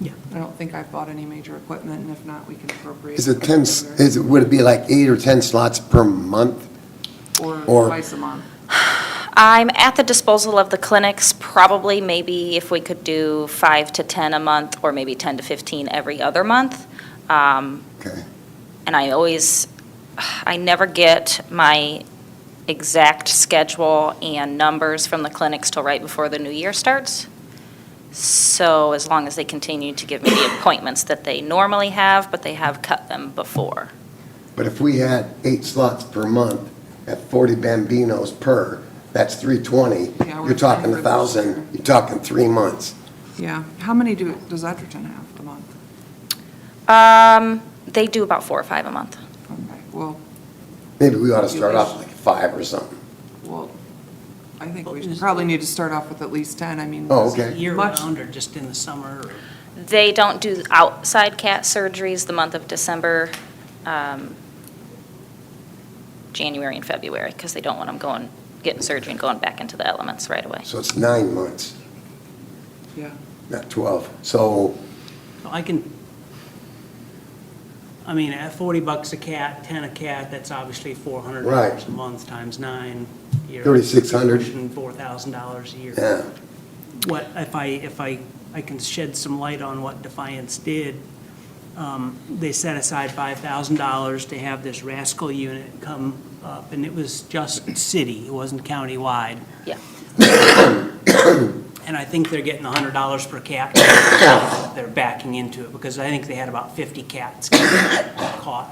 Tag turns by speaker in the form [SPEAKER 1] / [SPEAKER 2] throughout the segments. [SPEAKER 1] Yeah. I don't think I've bought any major equipment, and if not, we can appropriate.
[SPEAKER 2] Is it 10, s- is, it- would it be like eight or 10 slots per month?
[SPEAKER 1] Or
[SPEAKER 2] or-
[SPEAKER 1] twice a month.
[SPEAKER 3] I'm at the disposal of the clinics, probably maybe if we could do five to 10 a month, or maybe 10 to 15 every other month. Um,
[SPEAKER 2] Okay.
[SPEAKER 3] And I always, I never get my exact schedule and numbers from the clinics till right before the new year starts. So as long as they continue to give me the appointments that they normally have, but they have cut them before.
[SPEAKER 2] But if we had eight slots per month at 40 Bambinos per, that's 320.
[SPEAKER 1] Yeah, we're
[SPEAKER 2] You're
[SPEAKER 1] trying
[SPEAKER 2] talking
[SPEAKER 1] to-
[SPEAKER 2] 1,000, you're talking three months.
[SPEAKER 1] Yeah. How many do, does Edgerton have a month?
[SPEAKER 3] Um, They do about four or five a month.
[SPEAKER 1] Okay, well,
[SPEAKER 2] Maybe we ought to start off like five or something.
[SPEAKER 1] well, I think we should probably need to start off with at least 10. I mean.
[SPEAKER 2] Oh, okay.
[SPEAKER 1] Much-
[SPEAKER 4] Year-round or just in the summer? or-
[SPEAKER 3] They don't do outside cat surgeries the month of December, um, January and February, because they don't want them going, getting surgery and going back into the elements right away.
[SPEAKER 2] So it's nine months,
[SPEAKER 1] Yeah.
[SPEAKER 2] not 12. So,
[SPEAKER 4] So I can, I mean, at 40 bucks a cat, 10 a cat, that's obviously $400
[SPEAKER 2] Right.
[SPEAKER 4] a month times nine. you're-
[SPEAKER 2] 3,600.
[SPEAKER 4] you're pushing $4,000 a year.
[SPEAKER 2] yeah,
[SPEAKER 4] what, if I, if I, I can shed some light on what Defiance did. Um, They set aside $5,000 to have this rascal unit come up, and it was just city, it wasn't countywide.
[SPEAKER 3] Yeah.
[SPEAKER 4] And I think they're getting $100 per cat. They're backing into it, because I think they had about 50 cats caught.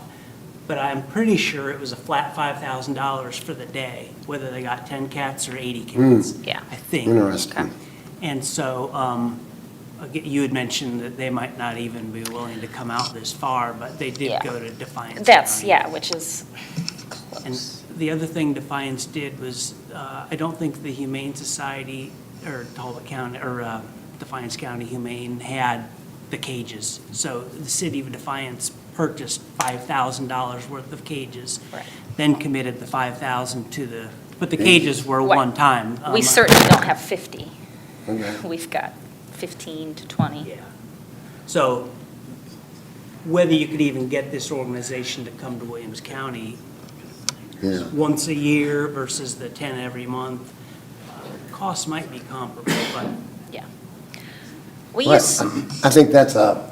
[SPEAKER 4] But I'm pretty sure it was a flat $5,000 for the day, whether they got 10 cats or 80 cats.
[SPEAKER 3] Yeah.
[SPEAKER 4] I think.
[SPEAKER 2] interesting.
[SPEAKER 4] And so, um, aga- you had mentioned that they might not even be willing to come out this far, but they did
[SPEAKER 3] Yeah.
[SPEAKER 4] go to Defiance.
[SPEAKER 3] That's,
[SPEAKER 4] County.
[SPEAKER 3] yeah, which is
[SPEAKER 4] And
[SPEAKER 3] close.
[SPEAKER 4] the other thing Defiance did was, uh, I don't think the Humane Society, or Talbot County, or uh, Defiance County Humane had the cages. So the city of Defiance purchased $5,000 worth of cages.
[SPEAKER 3] Right.
[SPEAKER 4] Then committed the 5,000 to the, but the
[SPEAKER 2] They-
[SPEAKER 4] cages were
[SPEAKER 3] Right.
[SPEAKER 4] one time.
[SPEAKER 3] We
[SPEAKER 4] Um,
[SPEAKER 3] certainly don't have 50.
[SPEAKER 2] Okay.
[SPEAKER 3] We've got 15 to 20.
[SPEAKER 4] Yeah. So whether you could even get this organization to come to Williams County
[SPEAKER 2] Yeah.
[SPEAKER 4] once a year versus the 10 every month, uh, costs might be comparable, but
[SPEAKER 3] We
[SPEAKER 2] Well,
[SPEAKER 3] use,
[SPEAKER 2] I think that's a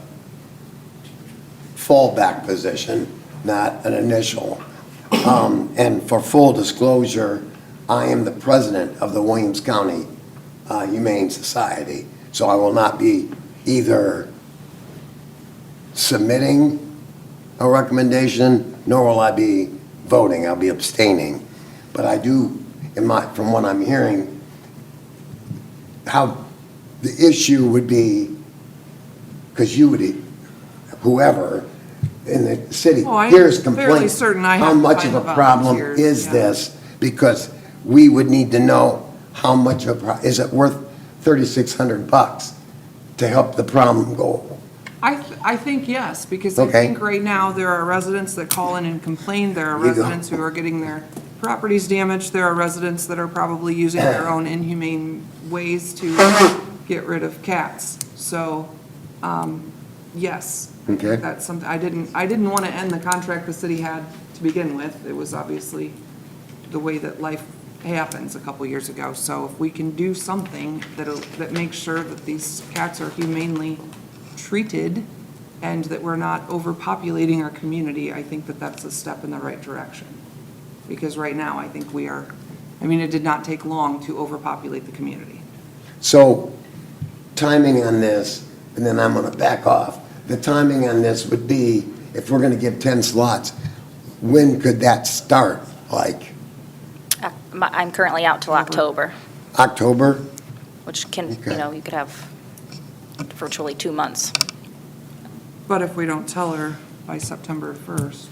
[SPEAKER 2] fallback position, not an initial. Um, And for full disclosure, I am the president of the Williams County uh, Humane Society, so I will not be either submitting a recommendation, nor will I be voting, I'll be abstaining. But I do, in my, from what I'm hearing, how the issue would be, because you would, whoever in the city
[SPEAKER 1] Well, Oh, I'm
[SPEAKER 2] hears
[SPEAKER 1] fairly
[SPEAKER 2] complaints.
[SPEAKER 1] certain I
[SPEAKER 2] How
[SPEAKER 1] have
[SPEAKER 2] much of a
[SPEAKER 1] five
[SPEAKER 2] problem
[SPEAKER 1] volunteers,
[SPEAKER 2] is
[SPEAKER 1] yeah.
[SPEAKER 2] this? Because we would need to know how much of a, pro- is it worth 3,600 bucks to help the problem go?
[SPEAKER 1] I, th- I think yes, because I
[SPEAKER 2] Okay.
[SPEAKER 1] think right now, there are residents that call in and complain, there are
[SPEAKER 2] There you go.
[SPEAKER 1] residents who are getting their properties damaged, there are residents that are probably using their own inhumane ways to get rid of cats. So, um, yes. I think
[SPEAKER 2] Okay.
[SPEAKER 1] That's something, I didn't, I didn't want to end the contract the city had to begin with. It was obviously the way that life happens a couple years ago. So if we can do something that'll, that makes sure that these cats are humanely treated and that we're not overpopulating our community, I think that that's a step in the right direction. Because right now, I think we are, I mean, it did not take long to overpopulate the community.
[SPEAKER 2] So timing on this, and then I'm going to back off. The timing on this would be, if we're going to give 10 slots, when could that start? Like
[SPEAKER 3] uh, my- I'm currently out till
[SPEAKER 4] Mm-hmm.
[SPEAKER 3] October,
[SPEAKER 2] October?
[SPEAKER 3] which can, you
[SPEAKER 2] Okay.
[SPEAKER 3] know, you could have virtually two months.
[SPEAKER 1] But if we don't tell her by September 1st.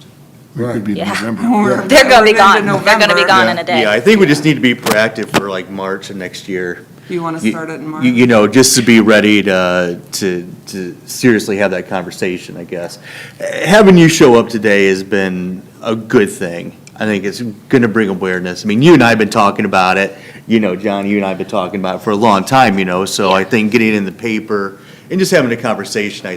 [SPEAKER 5] It could be
[SPEAKER 3] Yeah.
[SPEAKER 5] November.
[SPEAKER 1] we're-
[SPEAKER 3] They're going to be
[SPEAKER 1] we're into
[SPEAKER 3] gone. They're going to be
[SPEAKER 1] November.
[SPEAKER 3] gone in a day.
[SPEAKER 6] Yeah, I think we just need to be proactive for like March of next year.
[SPEAKER 1] Do you want to
[SPEAKER 6] You-
[SPEAKER 1] start it in March?
[SPEAKER 6] You you know, just to be ready to, to, to seriously have that conversation, I guess. Eh, Having you show up today has been a good thing. I think it's gonna bring awareness. I mean, you and I have been talking about it, you know, John, you and I have been talking about it for a long time, you know, so I think getting it in the paper and just having a conversation, I